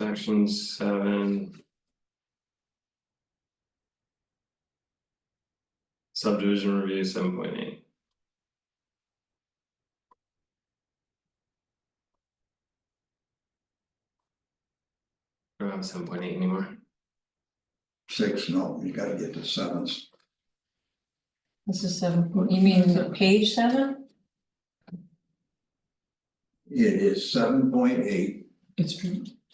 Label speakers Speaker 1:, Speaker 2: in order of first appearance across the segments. Speaker 1: Section seven. Subdivision review seven point eight. I don't have seven point eight anymore.
Speaker 2: Six, no, you gotta get to sevens.
Speaker 3: This is seven, you mean page seven?
Speaker 2: It is seven point eight.
Speaker 4: It's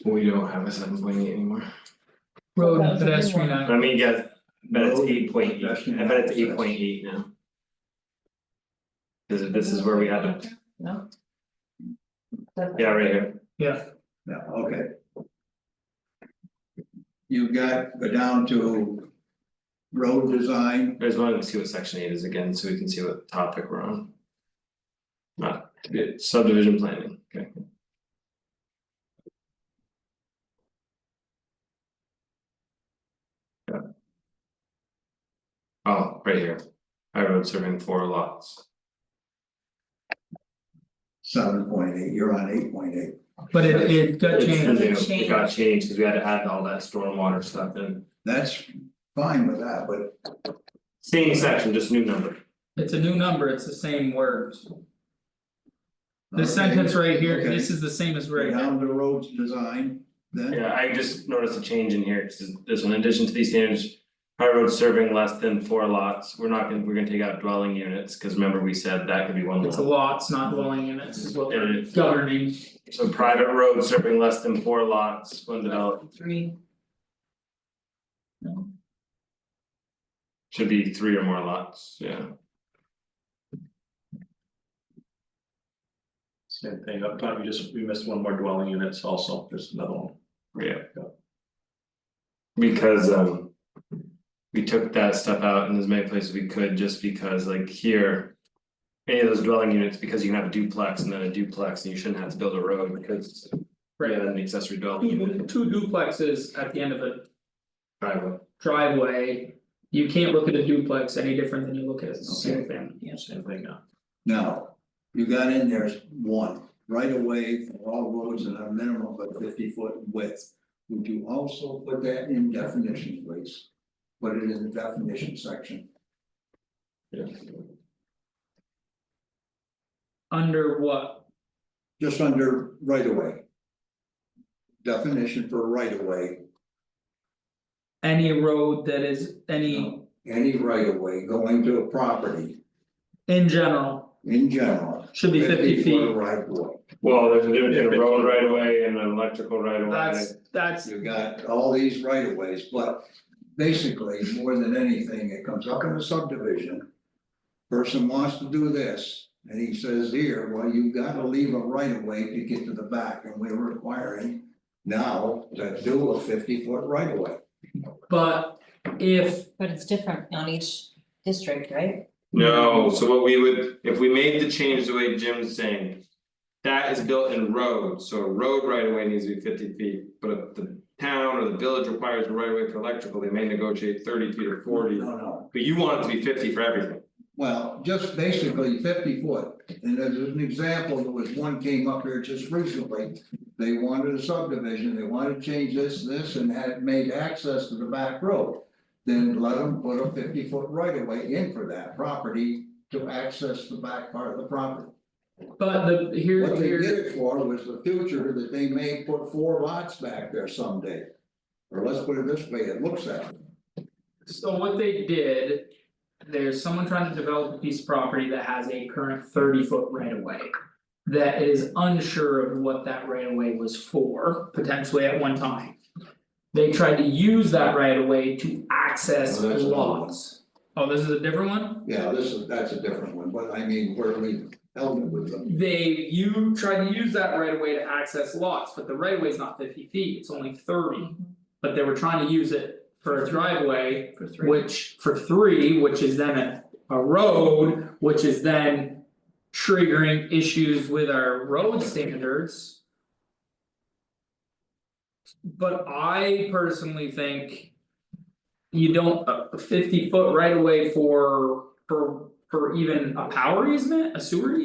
Speaker 1: We don't have a seven point eight anymore.
Speaker 4: road
Speaker 3: That
Speaker 4: and
Speaker 3: was a good
Speaker 4: pedestrian
Speaker 3: one.
Speaker 4: act,
Speaker 1: Let me guess, I bet it's
Speaker 2: Road
Speaker 1: eight point eight, I bet it's eight point eight now. Cause this is where we had it,
Speaker 3: No.
Speaker 1: yeah, right here,
Speaker 4: yeah,
Speaker 2: No, okay. You've got, go down to road design,
Speaker 1: I just wanted to see what section eight is again, so we can see what topic we're on. Not to be subdivision planning, okay. Yeah. Oh, right here, I road serving four lots,
Speaker 2: seven point eight, you're on eight point eight.
Speaker 4: but it it got
Speaker 1: It's-
Speaker 4: changed,
Speaker 1: It got changed, cause we had to add all that stormwater stuff in,
Speaker 2: That's fine with that, but
Speaker 1: same section, just new number.
Speaker 4: it's a new number, it's the same words. This
Speaker 2: Okay,
Speaker 4: sentence right here,
Speaker 2: okay.
Speaker 4: this is the same as
Speaker 2: go
Speaker 4: right now,
Speaker 2: Down to roads design, then
Speaker 1: Yeah, I just noticed a change in here, 'cause this one, in addition to these standards. High road serving less than four lots, we're not gonna, we're gonna take out dwelling units, cause remember we said that could be one
Speaker 4: it's a
Speaker 1: lot.
Speaker 4: lots, not dwelling units, is what
Speaker 1: There it
Speaker 4: we're
Speaker 1: is.
Speaker 4: governing,
Speaker 1: So private road serving less than four lots, when developed,
Speaker 3: Three,
Speaker 1: should be three or more lots, yeah.
Speaker 5: Same thing, up top, we just, we missed one more dwelling units also, there's another one.
Speaker 1: Yeah. Because um. We took that stuff out in as many places we could, just because like here. Any of those dwelling units, because you can have a duplex and then a duplex, and you shouldn't have to build a road because.
Speaker 4: right? Mm-hmm.
Speaker 1: Yeah, then the accessory dwelling
Speaker 4: Two
Speaker 1: unit
Speaker 4: two duplexes at the end of a
Speaker 1: driveway,
Speaker 4: driveway, you can't look at a duplex any different than you look at a single family.
Speaker 5: Same thing now.
Speaker 2: now, you got in there one, right away for all roads and a minimum of fifty foot width. Would you also put that in definition, please? Put it in the definition section.
Speaker 1: yeah.
Speaker 4: Under what,
Speaker 2: just under right of way. Definition for right of way,
Speaker 4: any road that is any,
Speaker 2: No. any right of way going to a property
Speaker 4: in general,
Speaker 2: in general.
Speaker 4: should be fifty feet.
Speaker 2: foot Right of way,
Speaker 1: Well, there's a difference in a road right away and an electrical right away.
Speaker 4: That's that's
Speaker 2: you got all these right of ways, but basically, more than anything, it comes up in a subdivision. Person wants to do this, and he says here, well, you've gotta leave a right of way to get to the back, and we're requiring. Now to do a fifty foot right of way,
Speaker 4: But if
Speaker 3: but it's different on each district, right?
Speaker 1: No,
Speaker 4: Mm-hmm.
Speaker 1: so what we would, if we made the change the way Jim's saying. That is built in roads, so a road right away needs to be fifty feet, but if the town or the village requires a right away for electrical, they may negotiate thirty feet or forty.
Speaker 2: no, no.
Speaker 1: But you want it to be fifty for everything,
Speaker 2: Well, just basically fifty foot, and as an example, there was one came up here just recently. They wanted a subdivision, they wanted to change this, this, and had made access to the back road. Then let them put a fifty foot right of way in for that property to access the back part of the property.
Speaker 4: But the here
Speaker 2: What they did
Speaker 4: here,
Speaker 2: it for was the future that they may put four lots back there someday. Or let's put it this way, it looks at it.
Speaker 4: so what they did. There's someone trying to develop a piece of property that has a current thirty foot right of way. That is unsure of what that right of way was for, potentially at one time. They tried to use that right of way to access
Speaker 2: Oh, that's another one.
Speaker 4: lots. Oh, this is a different one?
Speaker 2: Yeah, this is, that's a different one, but I mean, where we held it with them.
Speaker 4: They, you tried to use that right of way to access lots, but the right of way is not fifty feet, it's only thirty. But they were trying to use it for a driveway
Speaker 3: For three.
Speaker 4: Which for three, which is then a a road, which is then triggering issues with our road standards. But I personally think. You don't, a fifty foot right away for for for even a power easement, a sewer